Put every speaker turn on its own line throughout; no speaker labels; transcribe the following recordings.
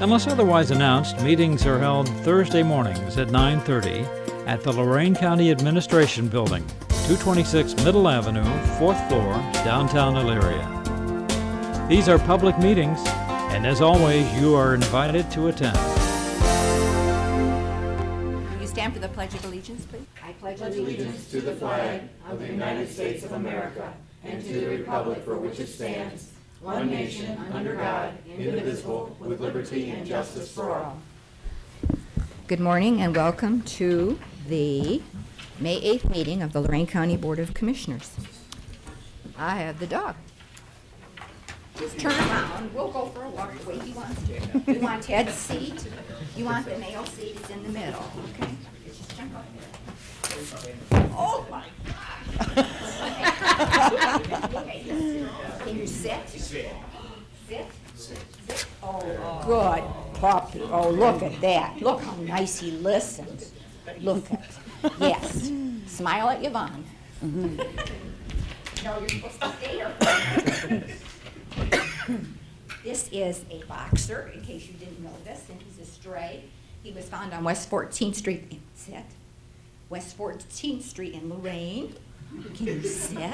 Unless otherwise announced, meetings are held Thursday mornings at 9:30 at the Lorraine County Administration Building, 226 Middle Avenue, 4th floor, downtown Elyria. These are public meetings, and as always, you are invited to attend.
Will you stand for the Pledge of Allegiance, please? I pledge Good morning and welcome to the May 8th meeting of the Lorraine County Board of Commissioners. I have the dog. Just turn around, we'll go for a walk the way he wants to. You want Ted's seat? You want the male seat, it's in the middle, okay? Just jump up there. Oh, my gosh! Okay, let's see. Can you sit? Sit. Sit? Good puppy. Oh, look at that. Look how nice he listens. Look at, yes. Smile at Yvonne. No, you're supposed to stay here. This is a boxer, in case you didn't know this, and he's a stray. He was found on West 14th Street, in- sit. West 14th Street in Lorraine. Can you sit?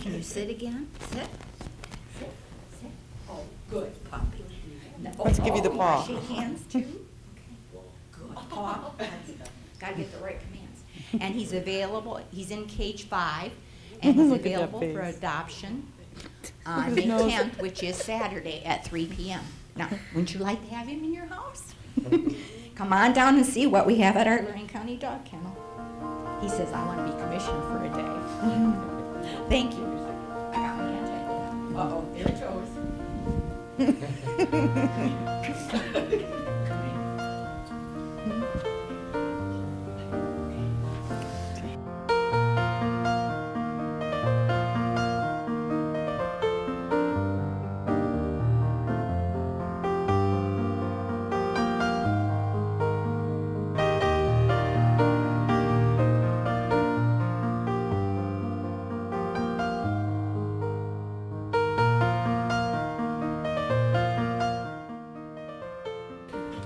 Can you sit again? Sit. Sit. Sit. Oh, good puppy.
Let's give you the
Oh,
paw.
Shake hands too. Okay. Good paw. Gotta get the right commands. And he's available, he's in cage five, and he's
Look at that
available for
face.
adoption on uh, May
nose.
10th, which is Saturday at 3 PM. Now, wouldn't you like to have him in your house? Come on down and see what we have at our Lorraine County Dog Kennel. He says, I want to be commissioner for a day. Thank you. I got my hand tied. Uh-oh, there it goes.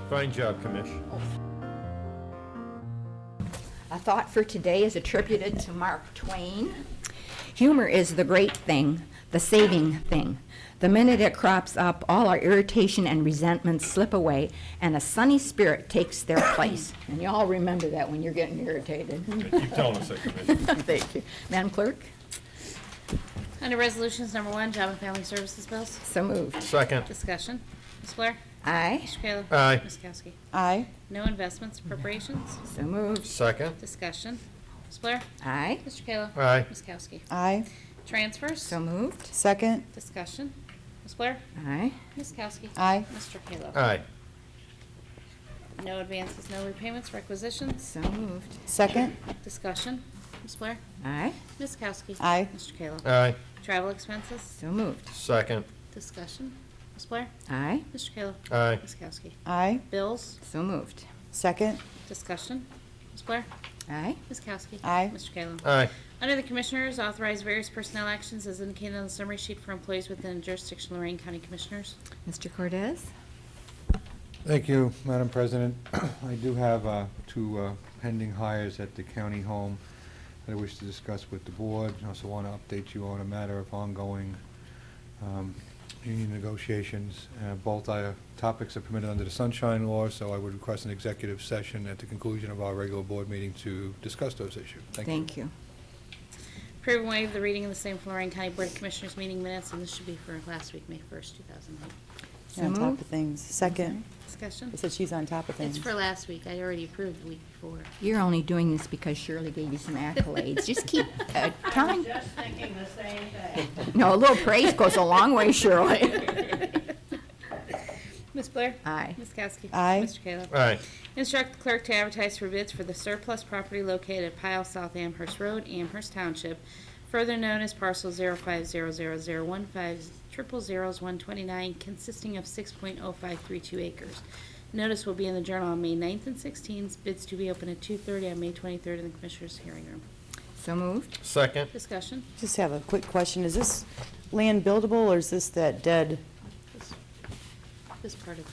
Fine job, Commish.
A thought for today is attributed to Mark Twain. Humor is the great thing, the saving thing. The minute it crops up, all our irritation and resentment slip away, and a sunny spirit takes their place. And you all remember that when you're getting irritated.
Keep telling us that, Commish.
Thank you. Madam Clerk,
Under Resolutions Number One, Job and Family Services Bills,
so moved.
Second.
discussion. Ms. Blair?
Aye,
Mr. Kayla?
Aye.
Ms. Kowski?
Aye.
No investments, appropriations,
so moved.
Second.
discussion. Ms. Blair?
Aye,
Mr. Kayla?
Aye.
Ms. Kowski?
Aye.
Transfers,
so moved.
Second.
discussion. Ms. Blair?
Aye,
Ms. Kowski?
Aye.
Mr. Kayla?
Aye.
No advances, no repayments, requisitions,
so moved.
Second.
discussion. Ms. Blair?
Aye,
Ms. Kowski?
Aye.
Mr. Kayla?
Aye.
Travel expenses,
so moved.
Second.
discussion. Ms. Blair?
Aye,
Mr. Kayla?
Aye.
Ms. Kowski?
Aye.
Bills,
so moved.
Second.
discussion. Ms. Blair?
Aye,
Ms. Kowski?
Aye.
Mr. Kayla?
Aye.
Under the Commissioners, authorize various personnel actions as indicated on the summary sheet for employees within jurisdiction of Lorraine County Commissioners.
Mr. Cortez?
Thank you, Madam President. I do have uh, two uh, pending hires at the county home that I wish to discuss with the board. I also want to update you on a matter of ongoing um, union negotiations. Uh, Both uh, topics are permitted under the Sunshine Law, so I would request an executive session at the conclusion of our regular board meeting to discuss those issues. Thank you.
Thank you.
Approve and waive the reading of the same for Lorraine County Board of Commissioners meeting minutes, and this should be for last week, May 1st, 2009.
She's on top of things. Second.
Discussion?
It said she's on top of
It's
things.
for last week. I already approved the week before.
You're only doing this because Shirley gave you some accolades. Just keep uh, telling,
Just thinking the same thing.
no, a little praise goes a long way, Shirley.
Ms. Blair?
Aye.
Ms. Kowski?
Aye.
Mr. Kayla?
Aye.
Instruct the clerk to advertise for bids for the surplus property located at Pile South Amherst Road, Amherst Township, further known as parcel 050000150000129, consisting of 6.0532 acres. Notice will be in the Journal on May 9th and 16th, bids to be open at 2:30 on May 23rd in the Commissioners' hearing room.
So moved.
Second.
Discussion?
Just have a quick question. Is this land buildable or is this that dead?
This- This part of the